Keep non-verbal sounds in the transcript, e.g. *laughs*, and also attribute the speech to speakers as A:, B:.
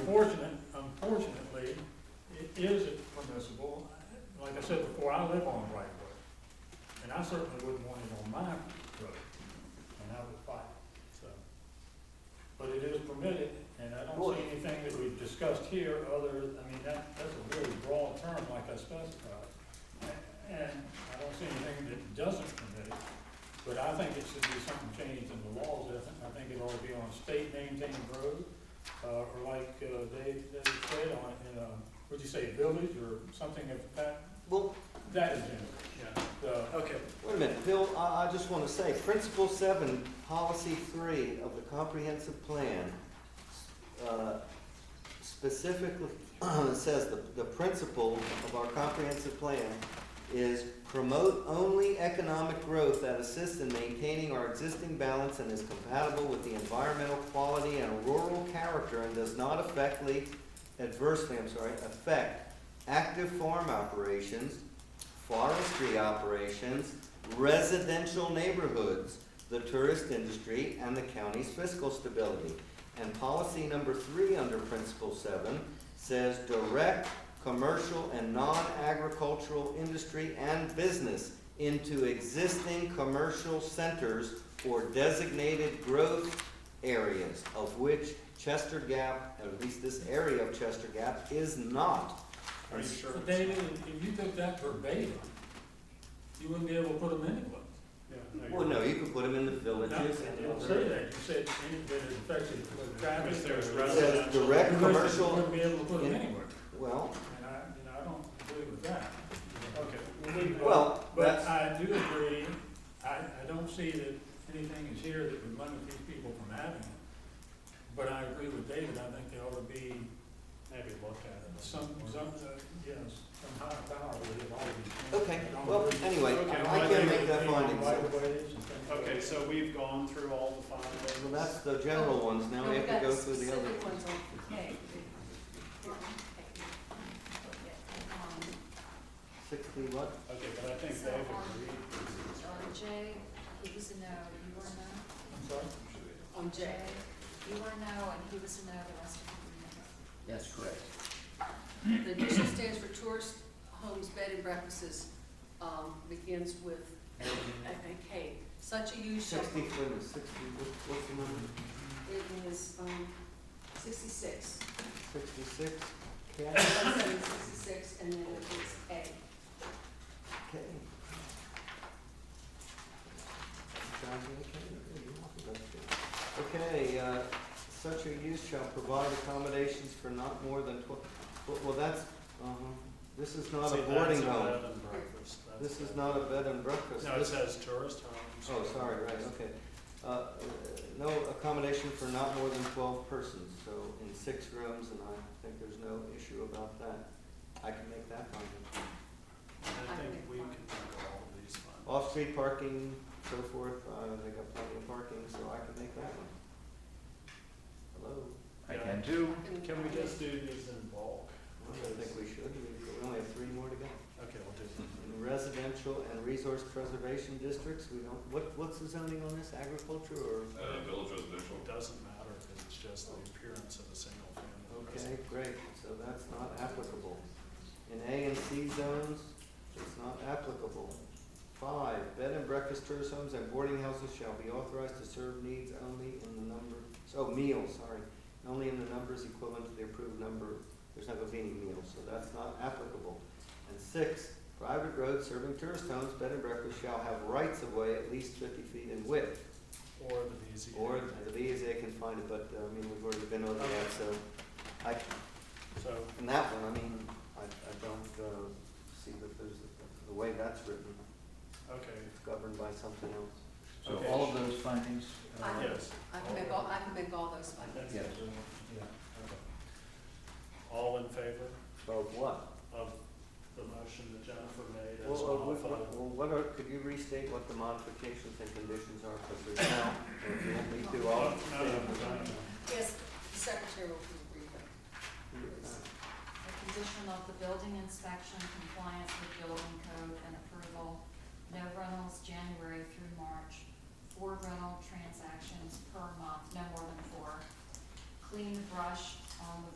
A: Unfortunate, unfortunately, it is permissible. Like I said before, I live on right of way, and I certainly wouldn't want it on my road, and I would fight, it, so. But it is permitted, and I don't see anything that we've discussed here other, I mean, that, that's a really broad term like I specified. And I don't see anything that doesn't permit it, but I think it should be something changed in the laws, I think, I think it ought to be on state maintained road, uh, or like, uh, they, they said on, in, um, what'd you say, village or something of that,
B: Well,
A: that is in,
C: Yeah,
A: the,
C: okay.
B: wait a minute, Bill, I, I just want to say, Principle Seven, Policy Three of the Comprehensive Plan uh, specifically *clears throat* says the, the principle of our comprehensive plan is promote only economic growth that assists in maintaining our existing balance and is compatible with the environmental quality and rural character and does not affectly, adversely, I'm sorry, affect active farm operations, forestry operations, residential neighborhoods, the tourist industry, and the county's fiscal stability. And policy number three under principle seven says direct commercial and non-agricultural industry and business into existing commercial centers or designated growth areas, of which Chester Gap, at least this area of Chester Gap, is not.
C: Are you sure?
A: But David, if you took that verbatim, you wouldn't be able to put them anywhere.
C: Yeah,
B: Well,
C: you're-
B: no, you could put them in the villages.
A: You don't say that, you said any that is affected with traffic.
C: If there's
A: or-
B: It says
C: residents.
B: direct
A: You said you
B: commercial,
A: Wouldn't be able to put them
B: in-
A: anywhere,
B: well,
A: and I, you know, I don't agree with that.
C: Okay.
B: well,
A: But
B: that's,
A: I do agree, I, I don't see that anything is here that would limit these people from having it. But I agree with David, I think there ought to be
C: Maybe look at it.
A: some, some, uh, yes, some higher power with it, all these things.
B: okay,
A: I don't
B: well,
A: agree.
B: anyway,
C: Okay,
B: I I
C: well,
B: can't
C: I
B: make
C: think
B: that
C: it'd be
B: finding,
A: Right
B: so.
A: of ways and things like
C: Okay,
A: that.
C: so we've gone through all the five ways.
B: Well, that's the general ones, now we have to go through the other.
D: Specific ones on K.
E: Um,
B: Sixty what?
C: Okay, but I think
D: So,
C: they've
D: um,
C: agreed.
D: On J, he was a no, you were a
A: I'm sorry?
D: no. On J. You were a no, and he was a no, the rest of
F: That's correct.
E: The addition stands for tourist homes, bed and breakfast, um, begins with a, a K. Such a use shall,
B: Sixty, wait a minute, sixty, what- what's the number?
E: it is, um, sixty-six,
B: Sixty-six? K?
E: seven sixty-six, and then it is
B: K. Sounds like a K, yeah, you want it, that's good. Okay, uh, such a use shall provide accommodations for not more than twelve, well, well, that's, uh this is not
C: See,
B: a
C: that's
B: boarding
C: a
B: home.
C: bed and breakfast. That's
B: This is
C: a-
B: not a bed and breakfast.
C: No, it
B: This-
C: says tourist homes.
B: Oh, sorry, right, okay. Uh, uh, No accommodation for not more than twelve persons, so in six rooms, and I think there's no issue about that. I can make that finding.
C: And I think we can do all of these five.
B: Off-street parking, so forth, uh, they got plenty of parking, so I can make that one. Hello?
F: I can too.
E: A.
C: Can we just do these in bulk?
B: I don't think we should, we we only have three more to go.
C: Okay, we'll do them.
B: In residential and resource preservation districts, we don't, what, what's the zoning on this, agriculture or?
G: Uh, village residential.
C: It doesn't matter because it's just the appearance of a single family.
B: Okay, great, so that's not applicable. In A and C zones, it's not applicable. Five, bed and breakfast tourist homes and boarding houses shall be authorized to serve needs only in the number, oh, meals, sorry, only in the numbers equivalent to the approved number, there's not gonna be any meals, so that's not applicable. And six, private roads serving tourist homes, bed and breakfast shall have rights of way at least fifty feet in width.
C: Or the easy.
B: Or the BZA can find it, but, uh, I mean, we've already been over that, so I,
C: So
B: in that one, I mean, I, I don't, uh, see that there's, the way that's written,
C: Okay,
B: it's governed by something else.
F: So
C: Okay.
F: all of those findings, uh,
E: I-
C: yes.
E: I can make all, I can make all those
C: *laughs*
E: five.
C: That's
F: Yes.
C: the rule. Yeah, okay. All in favor
B: Of what?
C: of the motion that Jennifer made as
B: Well, uh, what,
C: modified?
B: what- well, what are, could you restate what the modifications and conditions are, because there's now, if you want me to,
C: Oh,
B: I'll.
C: no, no, no, no.
E: Yes, the secretary will read them.
D: The condition of the building inspection, compliance with building code and approval, no rentals January through March, four rental transactions per month, no more than four. Clean brush on the